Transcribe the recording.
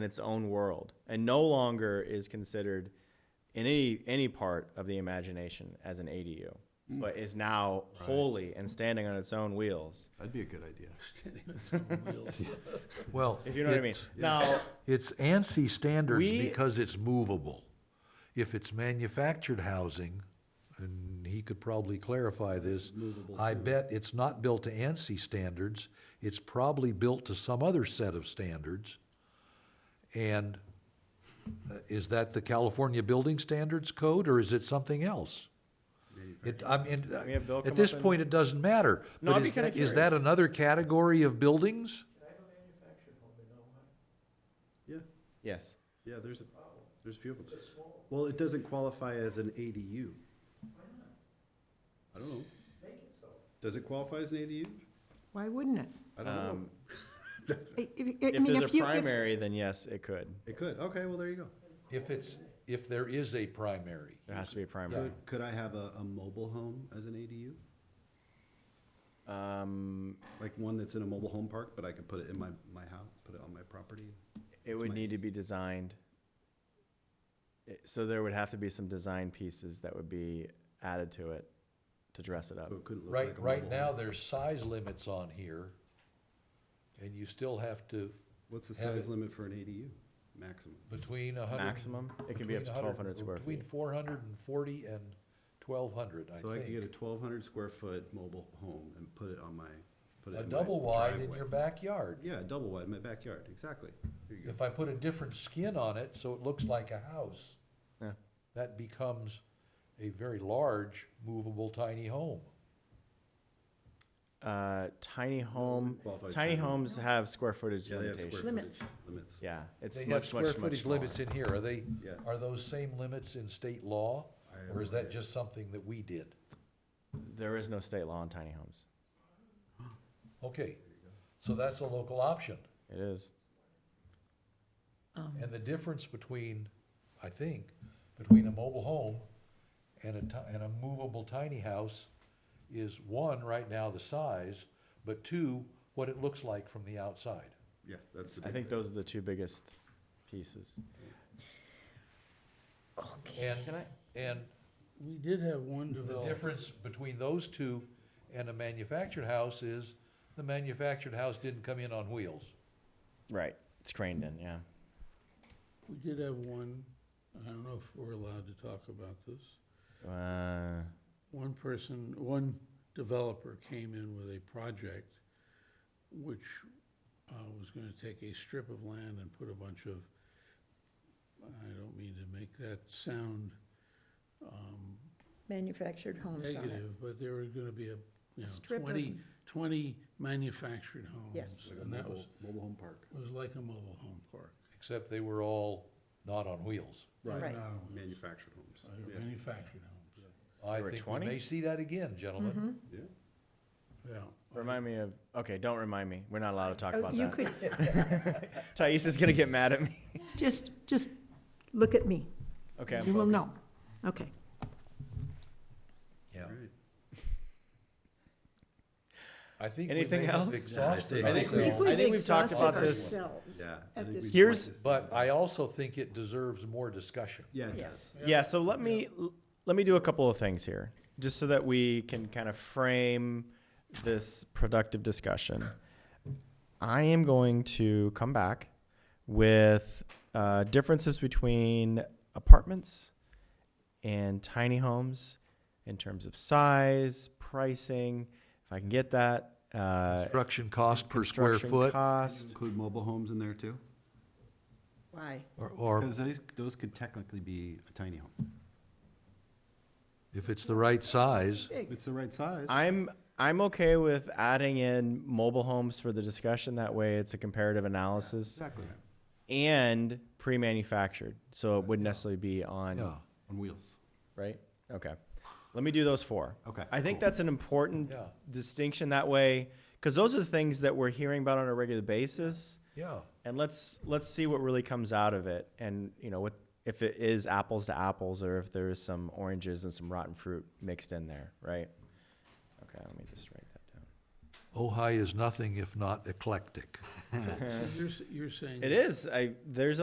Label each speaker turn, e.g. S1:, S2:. S1: in its own world and no longer is considered in any any part of the imagination as an ADU,
S2: Hmm.
S1: but is now wholly and standing on its own wheels.
S3: That'd be a good idea.
S2: Well,
S1: If you know what I mean.
S2: it's-
S1: Now,
S2: It's ANSI standards
S1: We-
S2: because it's movable. If it's manufactured housing, and he could probably clarify this, I bet it's not built to ANSI standards. It's probably built to some other set of standards. And uh, is that the California Building Standards Code, or is it something else? It, I mean, uh,
S1: We have Bill come
S2: at this
S1: up and-
S2: point, it doesn't matter.
S1: No,
S2: but
S1: I'd be
S2: is that-
S1: kinda
S2: Is that
S1: curious.
S2: another category of buildings?
S3: Yeah,
S1: yes.
S3: yeah, there's, a there's a few of them. Well, it doesn't qualify as an ADU. I don't know. Make it so. Does it qualify as an ADU?
S4: Why wouldn't it?
S3: I don't know.
S4: I- I- I
S1: Um, If
S4: mean,
S1: there's a
S4: if you- if-
S1: primary, then yes, it could.
S3: It could, okay, well, there you go.
S2: If it's, if there is a primary.
S1: There has to be a primary.
S3: Could, could I have a, a mobile home as an ADU?
S1: Um,
S3: Like one that's in a mobile home park, but I could put it in my, my house, put it on my property?
S1: it would need to be designed. It- So there would have to be some design pieces that would be added to it to dress it up.
S3: So it couldn't look like a
S2: Right, right
S3: mobile home.
S2: now, there's size limits on here, and you still have to,
S3: What's the
S2: have
S3: size
S2: it-
S3: limit for an ADU, maximum?
S2: between a hundred.
S1: Maximum, it could be up to
S2: between a hundred-
S1: 1,200 square
S2: Between
S1: feet.
S2: four hundred and forty and twelve hundred, I
S3: So I could get a
S2: think.
S3: twelve hundred square foot mobile home and put it on my, put it
S2: A
S3: in my
S2: double wide in
S3: driveway.
S2: your backyard.
S3: Yeah, a double wide in my backyard, exactly. There you go.
S2: If I put a different skin on it, so it looks like a house,
S1: Yeah.
S2: that becomes a very large movable tiny home.
S1: Uh, tiny home,
S3: qualifies
S1: tiny
S3: tiny home.
S1: homes have square footage
S3: Yeah, they have square
S1: limitations.
S4: Limits.
S3: footage limits.
S1: Yeah, it's
S2: They have
S1: much,
S2: square
S1: much, much
S2: footage
S1: smaller.
S2: limits in here, are they,
S3: Yeah.
S2: are those same limits in state law?
S3: I have
S2: Or is
S3: no
S2: that
S3: idea.
S2: just something that we did?
S1: There is no state law on tiny homes.
S2: Okay, so that's a local option.
S1: It is. Um.
S2: And the difference between, I think, between a mobile home and a ti- and a movable tiny house is one, right now, the size, but two, what it looks like from the outside.
S3: Yeah, that's the.
S1: I
S3: big
S1: think
S3: thing.
S1: those are the two biggest pieces.
S2: And,
S1: Can I-
S2: and
S5: We did have one
S2: The
S5: developed.
S2: difference between those two and a manufactured house is the manufactured house didn't come in on wheels.
S1: Right, it's craned in, yeah.
S5: We did have one, I don't know if we're allowed to talk about this.
S1: Uh,
S5: One person, one developer came in with a project which uh, was going to take a strip of land and put a bunch of, I don't mean to make that sound um,
S4: Manufactured homes on it.
S5: negative, but there were going to be a, you know,
S4: Strip of-
S5: 20, 20 manufactured homes.
S4: Yes.
S3: Like a
S5: And that
S3: mobile-
S5: was,
S3: Mobile home park.
S5: it was like a mobile home park,
S2: Except they were all not on wheels.
S4: Right.
S3: Manufactured homes.
S5: uh,
S3: Yeah.
S5: manufactured homes,
S2: I
S1: There were
S2: think we
S1: 20?
S2: may see that again,
S1: Mm-hmm.
S2: gentlemen.
S3: Yeah.
S5: yeah.
S1: remind me of, okay, don't remind me. We're not allowed to talk
S4: Oh,
S1: about
S4: You
S1: that.
S4: could,
S1: Thais is gonna get mad at me.
S4: just, just look at me.
S1: Okay, I'm
S4: You will
S1: focused.
S4: know. Okay.
S2: Yeah.
S3: All right.
S2: I think we
S1: Anything
S2: may have
S1: else?
S2: exhausted
S3: I think we-
S2: ourselves,
S1: I think we've talked
S4: exhausted
S1: about this-
S4: ourselves
S3: Yeah. I
S4: at
S3: think
S4: this
S3: we-
S1: Here's-
S2: but I also think it deserves more discussion.
S3: Yeah, it
S4: Yes.
S3: does.
S1: Yeah, so let me, l- let me do a couple of things here, just so that we can kind of frame this productive discussion. I am going to come back with uh, differences between apartments and tiny homes in terms of size, pricing, if I can get that, uh,
S2: Construction cost per square
S1: construction
S2: foot,
S1: cost.
S3: Include mobile homes in there too?
S4: Why?
S2: or, or
S3: Because those, those could technically be a tiny home.
S2: if it's the right size,
S3: If It's the right size.
S1: I'm I'm okay with adding in mobile homes for the discussion. That way, it's a comparative analysis
S3: Exactly.
S1: and pre-manufactured, so it wouldn't necessarily be on
S2: yeah.
S3: On wheels.
S1: right. Okay, let me do those four.
S3: Okay,
S1: I think
S3: cool.
S1: that's an important
S2: Yeah.
S1: distinction. That way, because those are the things that we're hearing about on a regular basis,
S2: Yeah,
S1: and let's let's see what really comes out of it, and you know what if it is apples to apples or if there is some oranges and some rotten fruit mixed in there, right? Okay, let me just write that down.
S6: Ojai is nothing if not eclectic.
S2: So you're, s- you're saying.
S1: It is. I there's